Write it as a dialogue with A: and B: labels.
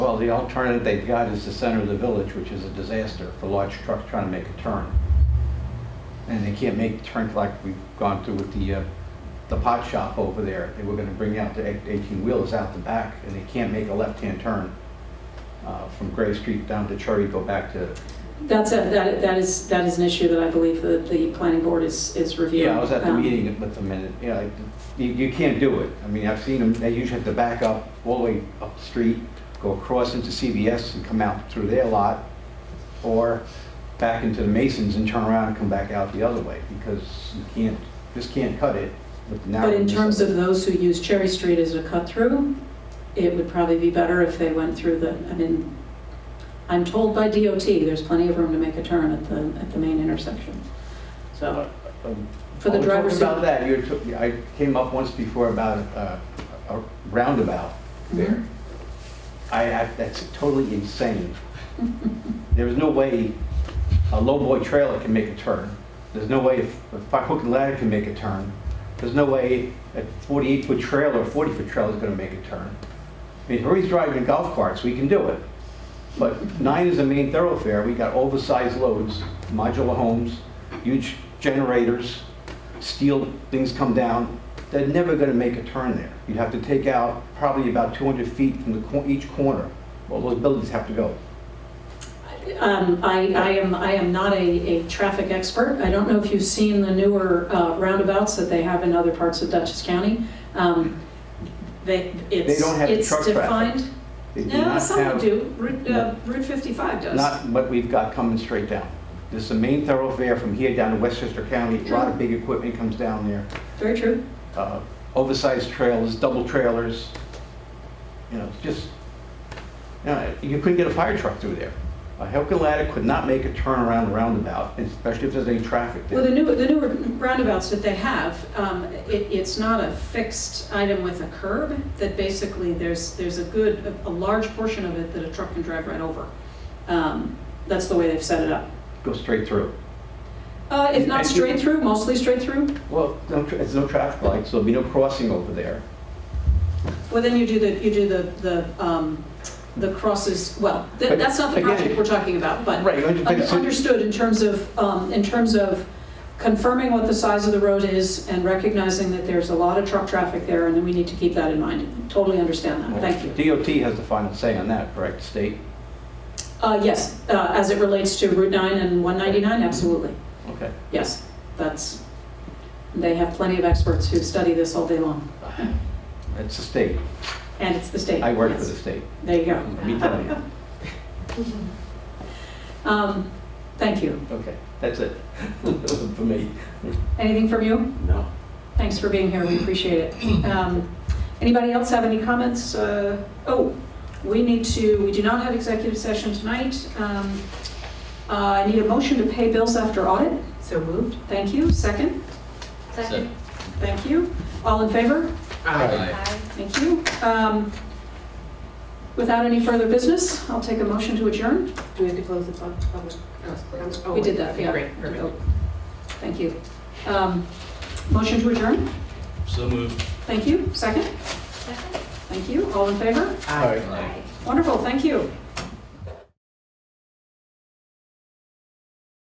A: the alternative they've got is the center of the village, which is a disaster for large trucks trying to make a turn. And they can't make turns like we've gone through with the, uh, the pot shop over there. They were gonna bring out the eighteen-wheelers out the back, and they can't make a left-hand turn uh, from Gray Street down to Cherry, go back to,
B: That's, a- that that is, that is an issue that I believe that the planning board is, is reviewing.
A: yeah, I was at the
B: Um,
A: meeting with them, and, yeah, like, you, you can't do it. I mean, I've seen them, they usually have to back up all the way up the street, go across into CVS and come out through their lot, or back into the Masons and turn around and come back out the other way, because you can't, just can't cut it with the
B: But in
A: narrowness
B: terms of those who use Cherry Street as a cut-through, it would probably be better if they went through the, I mean, I'm told by DOT, there's plenty of room to make a turn at the, at the main intersection. So,
A: Um,
B: for the
A: Oh,
B: driver's
A: Talking about that,
B: seat.
A: you took, I came up once before about uh, a roundabout
B: Mm-hmm.
A: there. I, I- that's totally insane. There is no way a lowboy trailer can make a turn. There's no way a five-hook ladder can make a turn. There's no way a 48-foot trailer or 40-foot trailer is going to make a turn. I mean, Hurry's driving golf carts, we can do it. But nine is the main thoroughfare, we got oversized loads, modular homes, huge generators, steel things come down, they're never gonna make a turn there. You'd have to take out probably about 200 feet from the, cor- each corner, all those buildings have to go.
B: Um, I, I am, I am not a, a traffic expert. I don't know if you've seen the newer uh, roundabouts that they have in other parts of Dutchess County. Um, They, it's,
A: don't have
B: it's
A: truck traffic.
B: defined.
A: They do
B: No,
A: not
B: some
A: have-
B: do. Route, uh, Route 55 does.
A: Not what we've got coming straight down. This is the main thoroughfare from here down to Westchester County, a lot of big equipment comes down there.
B: Very true.
A: uh, oversized trailers, double trailers, you know, just, you know, you couldn't get a fire truck through there. A Hilton ladder could not make a turnaround roundabout, especially if there's any traffic
B: Well, the
A: there.
B: newer, the newer roundabouts that they have, um, it, it's not a fixed item with a curb, that basically there's, there's a good, a- a large portion of it that a truck can drive right over. Um, That's the way they've set it up.
A: Go straight through.
B: Uh, If not
A: And you-
B: straight through, mostly straight through,
A: Well, no tra- there's no traffic lights, so there'll be no crossing over there.
B: well, then you do the, you do the, the um, the crosses, well, th-
A: But
B: that's not the
A: again-
B: project we're talking about, but
A: Right, but
B: Under-
A: it's-
B: Understood in terms of, um, in terms of confirming what the size of the road is and recognizing that there's a lot of truck traffic there and that we need to keep that in mind. Totally understand that, thank you.
A: DOT has the final say on that, correct, state?
B: Uh, Yes, uh, as it relates to Route 9 and 199, absolutely,
A: Okay.
B: yes. That's, they have plenty of experts who study this all day long,
A: It's the state.
B: and it's the state.
A: I work for
B: yes.
A: the state.
B: There you
A: Let me tell
B: go.
A: you.
B: Um, Thank you.
A: Okay, that's it. For me.
B: Anything from you?
A: No.
B: Thanks for being here, we appreciate it. Um, Anybody else have any comments? Uh, Oh, we need to, we do not have executive session tonight. Um, uh, I need a motion to pay bills after audit.
C: So moved.
B: Thank you. Second,
C: Second.
B: thank you. All in favor?
D: Aye.
B: Thank you. Um, Without any further business, I'll take a motion to adjourn.
C: Do we have to close the pub- public? Oh,
B: We did
C: wait.
B: that,
C: Okay,
B: yeah. Oh,
C: Great, perfect.
B: Thank you. Um, Motion to adjourn,
D: So moved.
B: thank you. Second, thank you. All in favor?
D: Aye.
B: Wonderful, thank you.